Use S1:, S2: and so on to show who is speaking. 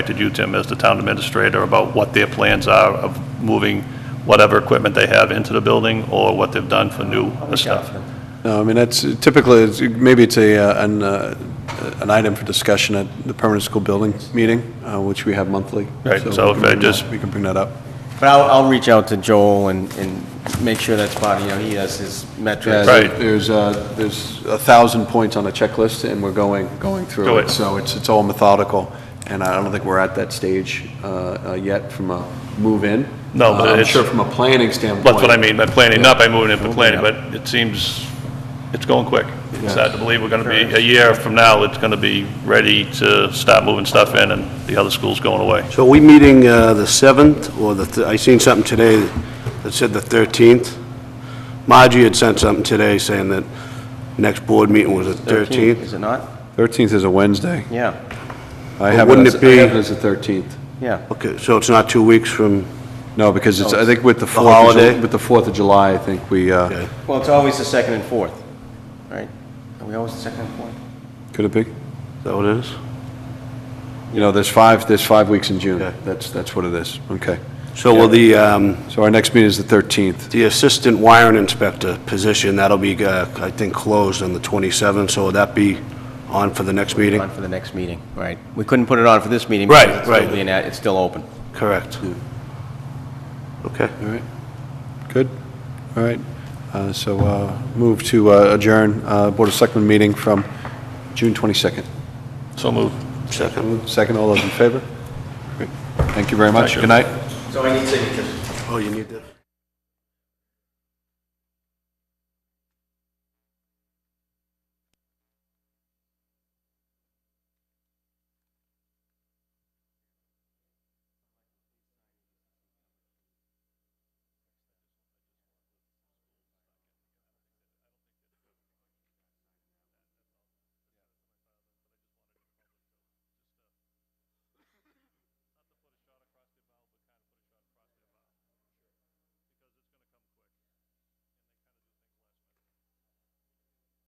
S1: contacted you, Tim, as the town administrator, about what their plans are of moving whatever equipment they have into the building, or what they've done for new stuff?
S2: No, I mean, that's typically, it's- maybe it's a, uh, an, uh, an item for discussion at the permanent school building meeting, uh, which we have monthly.
S1: Right, so
S2: we
S1: if
S2: can
S1: I
S2: bring that-
S1: just-
S2: We can bring that up.
S3: But I'll, I'll reach out to Joel and, and make sure that's part, of, you know, he has his metrics.
S1: Right.
S2: There's, uh, there's a thousand points on a checklist, and we're going, going
S1: Do
S2: through
S1: it.
S2: it. So it's, it's all methodical, and I don't think we're at that stage uh, uh, yet from a move-in.
S1: No, but
S2: Uh, I'm
S1: it's-
S2: sure from a planning standpoint.
S1: That's what I mean by planning, not by moving it, but planning,
S2: Yeah.
S1: but it seems, it's going quick. It's
S2: Yes.
S1: hard to believe we're gonna be, a year from now, it's gonna be ready to start moving stuff in, and the other school's going away.
S4: So are we meeting uh, the 7th, or the, th- I seen something today that said the 13th? Margie had sent something today saying that next board meeting was the 13th.
S3: Is it not?
S2: 13th is a Wednesday.
S3: Yeah,
S2: I
S4: But
S2: have
S4: wouldn't
S2: it as,
S4: it be-
S2: I have it as the 13th.
S3: yeah.
S4: Okay, so it's not two weeks from,
S2: No, because it's,
S3: Oh,
S2: I
S3: it's
S2: think with the
S4: the
S2: 4th of Ju-
S4: holiday?
S2: with the 4th of July, I think we, uh,
S4: Okay.
S3: Well, it's always the second and fourth, right? Are we always the second and fourth?
S2: could it be?
S4: is that what it is?
S2: You know, there's five, there's five weeks in June.
S4: Okay.
S2: That's, that's what it is. Okay.
S4: So will the, um,
S2: So our next meeting is the 13th.
S4: the assistant wiring inspector position, that'll be, uh, I think, closed on the 27th, so will that be on for the next meeting?
S3: On for the next meeting, right? We couldn't put it on for this meeting.
S4: Right,
S3: because it's still
S4: right.
S3: being at- It's still open.
S4: Correct. Okay.
S2: All right. Good. All right. Uh, So uh, move to uh, adjourn uh, Board of Selectmen meeting from June 22nd.
S1: So move.
S4: Second.
S2: Second, all those in favor? Great. Thank you very much. Good night.
S3: So I need signatures.
S4: Oh, you need that?